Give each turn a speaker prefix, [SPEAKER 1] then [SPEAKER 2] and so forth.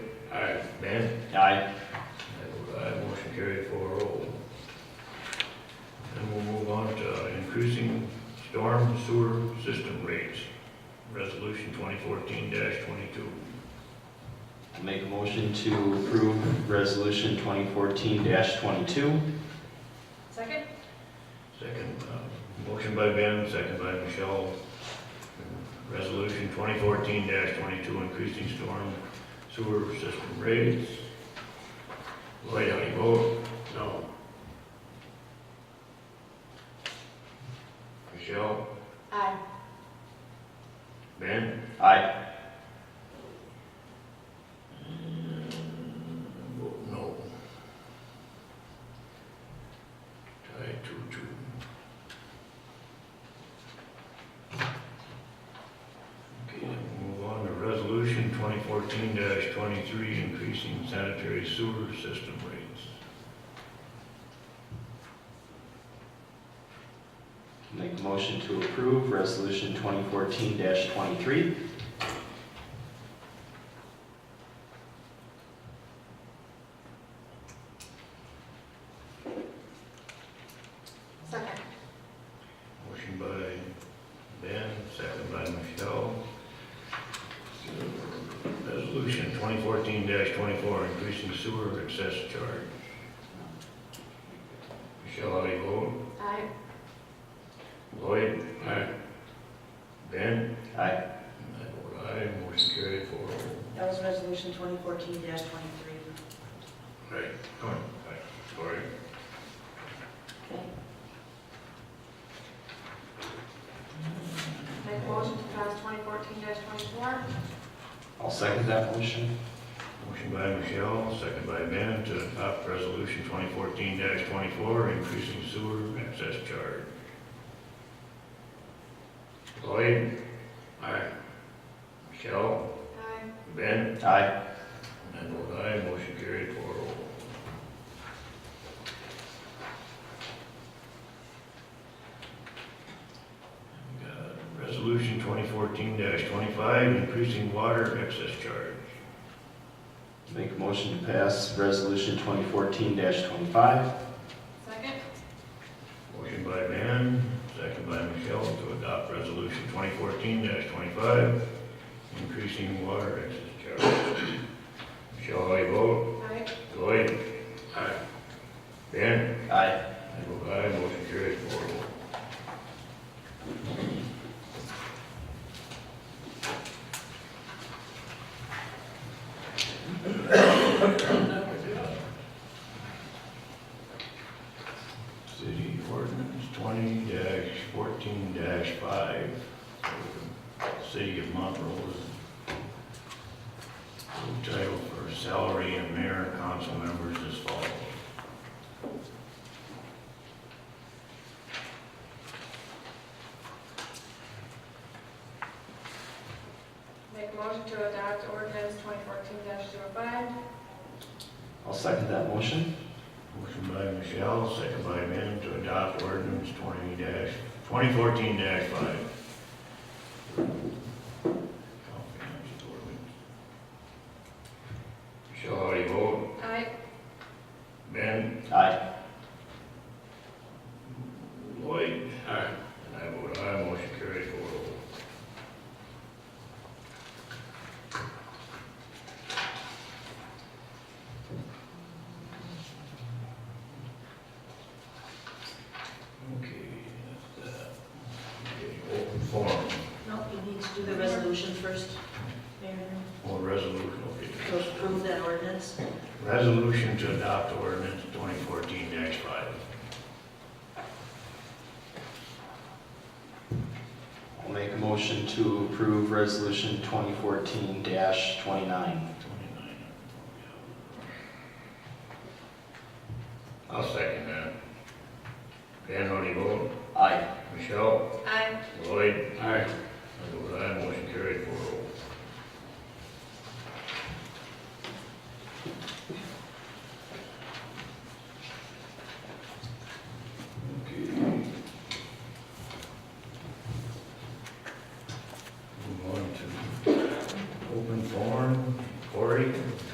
[SPEAKER 1] Aye. Dan?
[SPEAKER 2] Aye.
[SPEAKER 1] I vote aye, motion carried four oh. Then we'll move on to increasing storm sewer system rates, resolution twenty fourteen twenty-two.
[SPEAKER 2] I Make a motion to approve resolution 2014-22.
[SPEAKER 3] Second?
[SPEAKER 1] Second, uh, motion by Ben, second by Michelle. Resolution twenty fourteen twenty-two, increasing storm sewer system rates. Lloyd, how do you vote? No. Michelle,
[SPEAKER 3] Aye.
[SPEAKER 1] Ben?
[SPEAKER 2] Aye.
[SPEAKER 1] Vote no. Tie two, two. Okay, then we'll move on to resolution twenty fourteen twenty-three, increasing sanitary sewer system rates.
[SPEAKER 2] Make a motion to approve resolution 2014-23.
[SPEAKER 3] Second?
[SPEAKER 1] Motion by Ben, second by Michelle. Resolution twenty fourteen twenty-four, increasing sewer excess charge. Michelle, how do you vote?
[SPEAKER 3] Aye.
[SPEAKER 1] Lloyd? Aye. Ben?
[SPEAKER 2] Aye.
[SPEAKER 1] I vote aye, motion carried four oh.
[SPEAKER 4] That was resolution twenty fourteen twenty-three.
[SPEAKER 1] Right. Aye. Sorry.
[SPEAKER 4] Okay.
[SPEAKER 3] Make motion to pass twenty fourteen twenty-four?
[SPEAKER 2] I'll second that motion.
[SPEAKER 1] Motion by Michelle, second by Ben to adopt resolution twenty fourteen twenty-four, increasing sewer access charge. Lloyd? Aye. Michelle?
[SPEAKER 3] Aye.
[SPEAKER 1] Ben?
[SPEAKER 2] Aye.
[SPEAKER 1] I vote aye, motion carried four oh. Resolution twenty fourteen twenty-five, increasing water excess charge.
[SPEAKER 2] Make a motion to pass resolution 2014-25.
[SPEAKER 3] Second?
[SPEAKER 1] Motion by Van, second by Michelle to adopt resolution twenty fourteen twenty-five, increasing water excess charge. Michelle, how you vote?
[SPEAKER 3] Aye.
[SPEAKER 1] Lloyd? Aye. Ben?
[SPEAKER 2] Aye.
[SPEAKER 1] I vote aye, motion carries four oh. City ordinance twenty fourteen five, city of Montrose. Full Title for salary and mayor and council members as follows.
[SPEAKER 3] Make motion to adopt ordinance twenty fourteen 5
[SPEAKER 2] I'll second that motion.
[SPEAKER 1] Motion by Michelle, second by Ben to adopt ordinance twenty twenty fourteen five. Michelle, how do you vote?
[SPEAKER 3] Aye.
[SPEAKER 1] Ben?
[SPEAKER 2] Aye.
[SPEAKER 1] Lloyd? Aye. And I vote aye, motion carried four oh. Okay, that's that. Okay, Open forum,
[SPEAKER 4] No, you need to do the resolution first, Mayor,
[SPEAKER 1] or resolution,
[SPEAKER 4] to
[SPEAKER 1] okay.
[SPEAKER 4] approve that ordinance.
[SPEAKER 1] Resolution to adopt ordinance twenty fourteen five.
[SPEAKER 2] I'll make a motion to approve resolution 2014-29.
[SPEAKER 1] Twenty-nine. I'll second that. Dan, how do you vote?
[SPEAKER 2] Aye.
[SPEAKER 1] Michelle?
[SPEAKER 3] Aye.
[SPEAKER 1] Lloyd? Aye. oh.